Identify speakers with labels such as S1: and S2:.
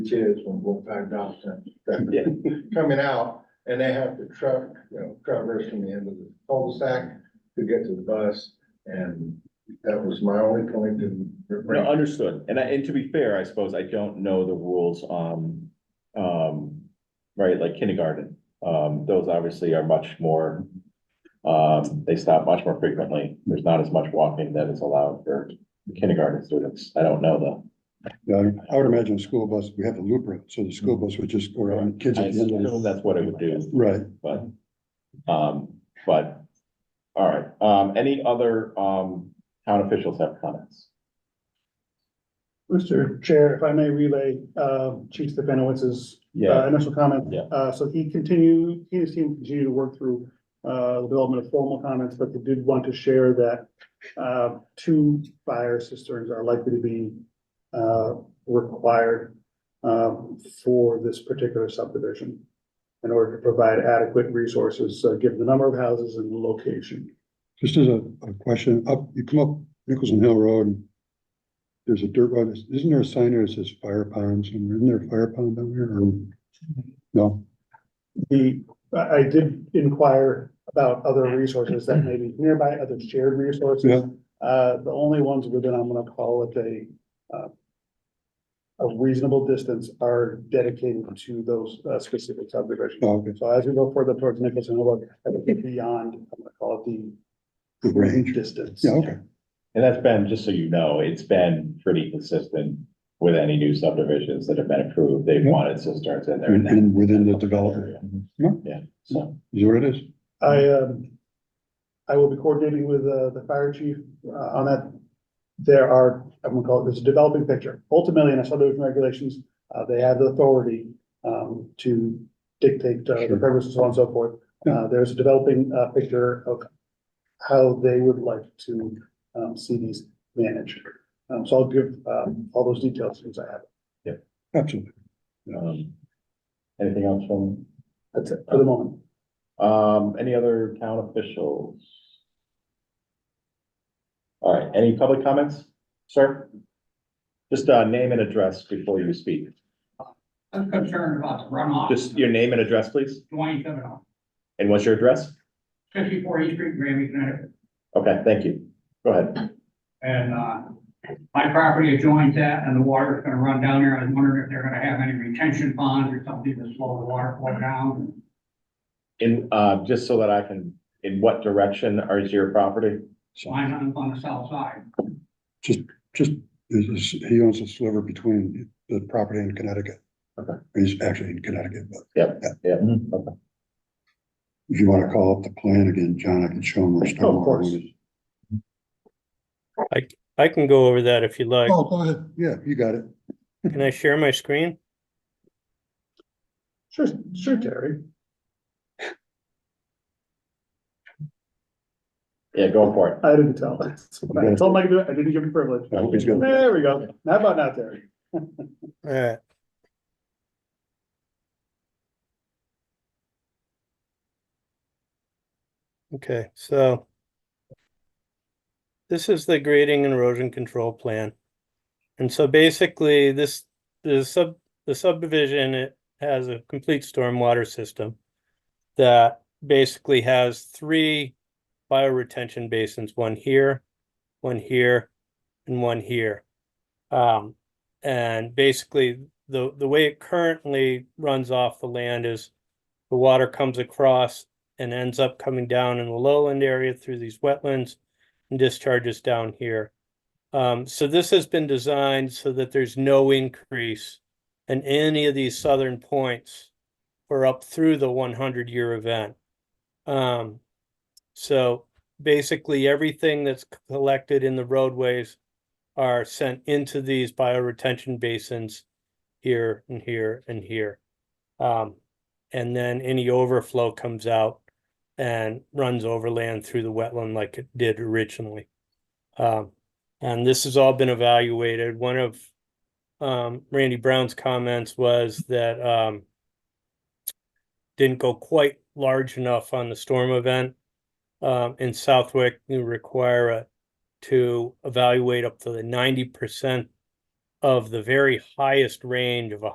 S1: kids when full-time jobs are coming out, and they have to truck, you know, traverse from the end of the cul-de-sac to get to the bus, and that was my only point in.
S2: No, understood. And I, and to be fair, I suppose I don't know the rules on, um, right, like kindergarten. Um, those obviously are much more, um, they stop much more frequently. There's not as much walking that is allowed for kindergarten students. I don't know though.
S3: Yeah, I mean, I would imagine a school bus, we have a loop road, so the
S2: Mm-hmm.
S3: school bus would just go around kids
S2: I
S3: at the end. of
S2: assume
S3: it.
S2: that's what it would do,
S3: Right,
S2: but, um, but, all right. Um, any other, um, town officials have comments?
S4: Mr. Chair, if I may relay, uh, Chief Stefanowitz's uh,
S2: Yeah,
S4: initial comment.
S2: Yeah.
S4: Uh, so he continued, he and his team continued to work through, uh, the development of formal comments, but they did want to share that, uh, two fire cisterns are likely to be, uh, required, uh, for this particular subdivision in order to provide adequate resources, uh, given the number of houses and the location.
S3: just as a, a question, up, you come up Nicholson Hill Road. and There's a dirt road, isn't there a sign there that says fire ponds, and isn't there a fire pond down there, or? No,
S4: The, I, I did inquire about other resources that may be nearby, other shared resources.
S3: Yeah.
S4: Uh, the only ones within, I'm gonna call it a, uh, a reasonable distance are dedicated to those uh, specific subdivisions.
S3: oh, okay,
S4: So as we go further towards Nicholson, Hill Road, I would get beyond, I'm gonna call it
S3: the
S4: the
S3: range,
S4: distance.
S3: yeah, okay,
S2: and that's been, just so you know, it's been pretty consistent with any new subdivisions that have been approved. They've
S3: Yeah.
S2: wanted cisterns in there.
S3: and,
S2: and
S3: and within the development,
S2: area.
S3: Yeah.
S2: Yeah, so,
S3: is what it is,
S4: I, um, I will be coordinating with, uh, the fire chief, uh, on that. There are, I'm gonna call it, there's a developing picture. Ultimately, in our subdivision regulations, uh, they have the authority, um, to dictate, uh, the
S3: Sure.
S4: premise and so on and so forth. Uh, there's a developing, uh, picture of how they would like to, um, see these managed. Um, so I'll give, um, all those details since I have. it.
S3: absolutely,
S2: um, anything else from,
S4: That's it for the moment.
S2: um, any other town officials? All right, any public comments, sir? Just, uh, name and address before you speak.
S5: I'm concerned about the runoff.
S2: Just your name and address, please.
S5: Dwayne Kavanaugh,
S2: And what's your address?
S5: fifty-four East Street, Grammy, Connecticut.
S2: Okay, thank you. Go ahead.
S5: And, uh, my property adjoins that and the water's gonna run down there. I was wondering if they're gonna have any retention ponds or something to slow the water flow down.
S2: In, uh, just so that I can, in what direction is your property?
S3: so,
S5: Mine on, on the south side.
S3: just, is, is, he owns a sliver between the property in Connecticut.
S2: Okay.
S3: He's actually in Connecticut, but.
S2: Yeah.
S3: If you wanna call up the plan again, John, I can show them where
S4: Oh, of
S3: stormwater
S4: course.
S3: limit.
S6: I can go over that if you'd like.
S3: Oh, go ahead. Yeah, you got it.
S6: Can I share my screen?
S4: Sure, sure, Terry.
S2: Yeah, go for it.
S4: I didn't tell. That's all I can do. I didn't give you privilege.
S3: I hope he's got it.
S4: There we go. How about not, Terry?
S6: Alright. Okay, so. This is the grading and erosion control plan. And so basically, this, the sub, the subdivision, it has a complete stormwater system. That basically has three bioretention basins, one here, one here, and one here. Um, and basically, the, the way it currently runs off the land is the water comes across and ends up coming down in the lowland area through these wetlands and discharges down here. Um, so this has been designed so that there's no increase in any of these southern points or up through the one hundred year event. Um, so basically, everything that's collected in the roadways are sent into these bioretention basins here and here and here. Um, and then any overflow comes out and runs overland through the wetland like it did originally. Um, and this has all been evaluated. One of um, Randy Brown's comments was that um, didn't go quite large enough on the storm event. Um, in Southwick, you require a to evaluate up to the ninety percent of the very highest range of a